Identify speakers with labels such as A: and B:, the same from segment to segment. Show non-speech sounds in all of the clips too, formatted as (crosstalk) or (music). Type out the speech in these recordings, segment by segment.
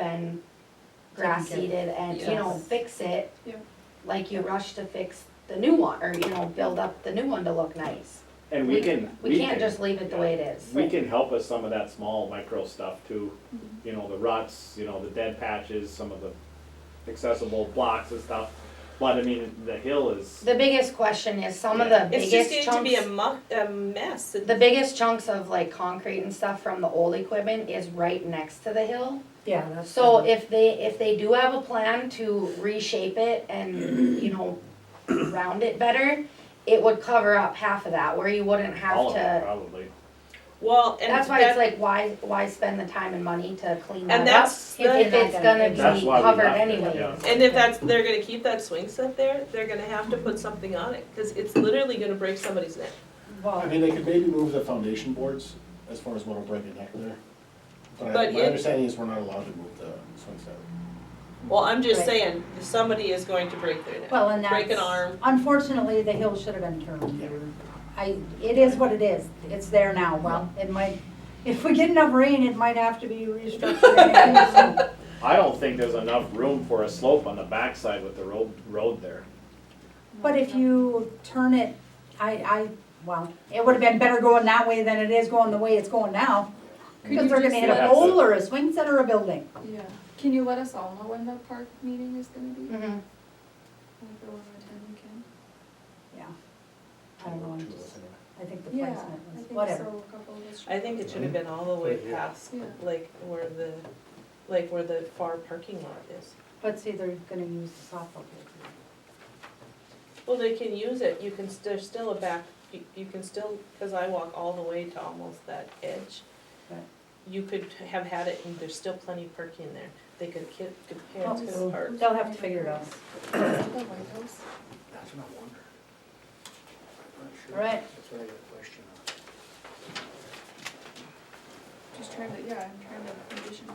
A: been grass
B: Taken
A: seeded and, you know,
B: Yes.
A: fix it.
B: Yeah.
A: Like you rush to fix the new one, or, you know, build up the new one to look nice.
C: And we can,
A: We can't just leave it the way it is.
C: We can help with some of that small micro stuff too,
A: Mm-hmm.
C: you know, the ruts, you know, the dead patches, some of the accessible blocks and stuff. But I mean, the hill is,
A: The biggest question is some of the
D: It's just
A: biggest
D: getting to be a
A: chunks,
D: muck, a mess.
A: the biggest chunks of like concrete and stuff from the old equipment is right next to the hill.
B: Yeah, that's.
A: So if they, if they do have a plan to reshape it and, you know, round it better, it would cover up half of that, where you wouldn't have
C: all of it
A: to.
C: probably.
D: Well, and
A: That's why
D: that-
A: it's like, why, why spend the time and money to clean that
D: And
A: up?
D: that's, the-
A: If, if it's gonna
C: That's
A: be
C: why we
A: covered
C: left it,
A: anyway.
C: yeah.
D: and if that's, they're gonna keep that swing set there, they're gonna have to put something on it, cause it's literally gonna break somebody's neck.
E: I mean, they could maybe move the foundation boards as far as what will break a neck there. But I-
D: But
E: my
D: it-
E: understanding is we're not allowed to move the swing set.
D: Well, I'm just
B: Right.
D: saying, somebody is going to break their neck.
B: Well, and
D: Break an
B: that's,
D: arm.
B: unfortunately, the hill should have been turned. I, it is what it is, it's there now, well, it might, if we get enough rain, it might have to be restructured. anyway, so.
C: I don't think there's enough room for a slope on the backside with the road, road there.
B: But if you turn it, I, I, well, it would have been better going that way than it is going the way it's going now. Because they're gonna hit
C: Could you
B: a
C: just-
B: pole or a swing set or a building.
F: Yeah, can you let us all know when the park meeting is gonna be? Like,
A: Mhm.
F: the one we attend, we can?
B: I don't know, I
E: Two of
B: just-
E: us anyway.
B: I think the
F: Yeah,
B: placement
F: I
B: was,
F: think
B: whatever.
F: so, a couple of us.
D: I think it should have been all the way past,
F: Yeah.
D: like, where the, like, where the far parking lot is.
B: But see, they're gonna use the softball field.
D: Well, they can use it, you can, s- there's still a back, you, you can still, cause I walk all the way to almost that edge.
B: Right.
D: You could have had it and there's still plenty of parking there, they could kid, could parents
B: Oh,
D: could
B: cool.
D: park.
B: They'll have to figure it out.
F: Is it The White House,
G: That's what I wondered. I'm not sure.
B: Right.
G: That's what I got a question on.
F: just trying to, yeah, I'm trying to condition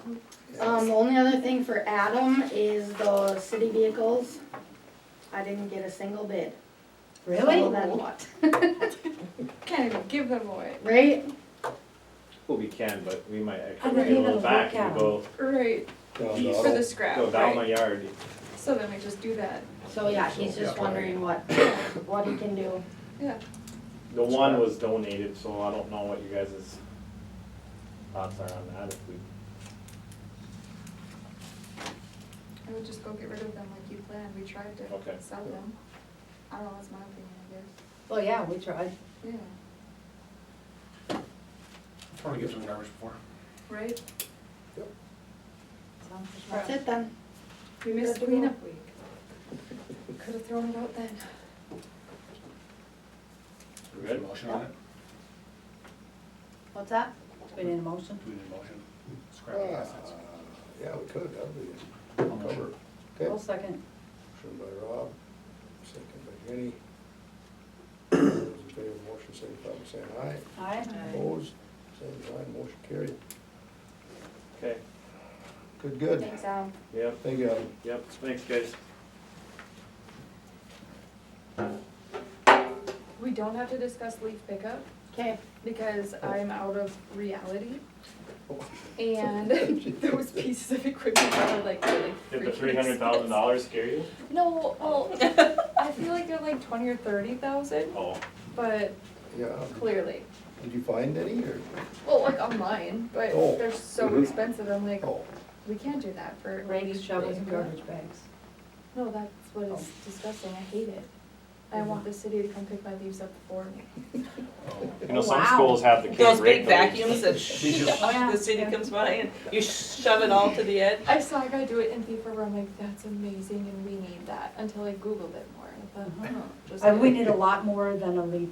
F: who.
A: Um, the only other thing for Adam is the city vehicles. I didn't get a single bid. So
B: Really?
A: then what? (laughs)
F: Can't even give them away,
A: Right?
C: Well, we can, but we might
B: I'm
C: actually get a
B: thinking
C: little
B: of
C: back
B: lookout.
C: and go,
F: right,
C: geez,
F: for the scrap,
C: go down my
F: right?
C: yard.
F: So then we just do that,
A: So yeah, he's just wondering what, what he can do.
F: yeah,
C: The one was donated, so I don't know what you guys' thoughts are on that, if we
F: I would just go get rid of them like you planned, we tried
C: Okay.
F: to sell them. I don't know, that's my opinion,
B: Well, yeah, we tried.
F: I guess, yeah,
E: Probably give some garbage before.
F: right,
B: Sounds like
A: That's it then.
F: we
B: Good
F: missed
B: to go.
F: cleanup week. Could've thrown it out then.
C: We're good?
E: Motion on it?
A: What's that?
B: We need a motion?
E: Do we need a motion? Scrap the assets.
H: uh, Yeah, we could, that'd be
E: I'll
H: a cover.
E: motion.
H: Okay,
B: I'll second.
H: motion by Rob, second by Jenny. Those in favor of the motion, signify by saying aye.
B: Aye.
H: Opposed, same sign, motion carried.
C: Okay,
H: Good, good.
A: Thanks, Adam.
C: yep,
H: Thank you, Adam.
C: yep, thanks guys.
F: We don't have to discuss leaf pickup
A: Okay.
F: because I'm out of reality. And
H: (laughs)
F: (laughs) there was pieces of equipment that were like really
C: Did the
F: freaking
C: three hundred thousand
F: expensive.
C: dollars scare you?
F: No, (laughs) well, I feel like they're like twenty or thirty thousand,
C: Oh,
F: but
H: Yeah,
F: clearly,
H: did you find any or?
F: well, like online, but
H: Oh.
F: they're so
C: Mhm.
F: expensive, I'm like,
H: Oh,
F: we can't do that for.
B: Rakes,
F: leaf
B: shovels, and
F: pickup.
B: garbage bags.
F: No, that's what
H: Oh.
F: is disgusting, I hate it. I
H: Mm-hmm.
F: want the city to come pick my leaves up for me.
C: you know, some
B: Wow.
C: schools have the kids
D: Those big
C: rake the
D: vacuums
C: leaves. (laughs)
D: that
B: yeah.
D: (laughs) the city comes by and you shove it all to the edge.
F: I saw a guy do it in Thief River, I'm like, that's amazing and we need that, until I Googled it more, and I thought, oh, just.
B: Uh, we need a lot more than a leaf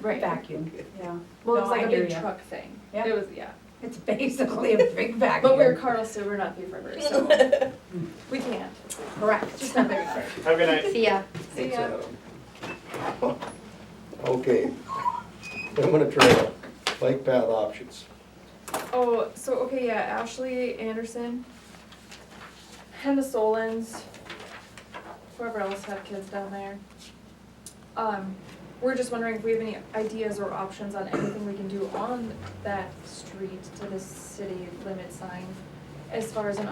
F: Right.
B: vacuum, yeah.
F: Well, it
B: No,
F: was
B: I
F: like a
B: hear
F: big
B: ya.
F: truck thing.
B: Yeah.
F: It was, yeah.
B: It's basically a big vacuum.
F: But we're Carlson, we're not Thief River,
B: (laughs)
F: so we can't. It's
B: Correct.
F: just not big enough.
C: Have a good night.
A: See ya.
F: So
H: thanks,
F: yeah,
H: Adam. Okay, Pembina Trail, bike path options.
F: oh, so, okay, yeah, Ashley Anderson and the Solons, whoever else had kids down there. Um, we're just wondering if we have any ideas or options on anything we can do on that street to the city limit sign as far as an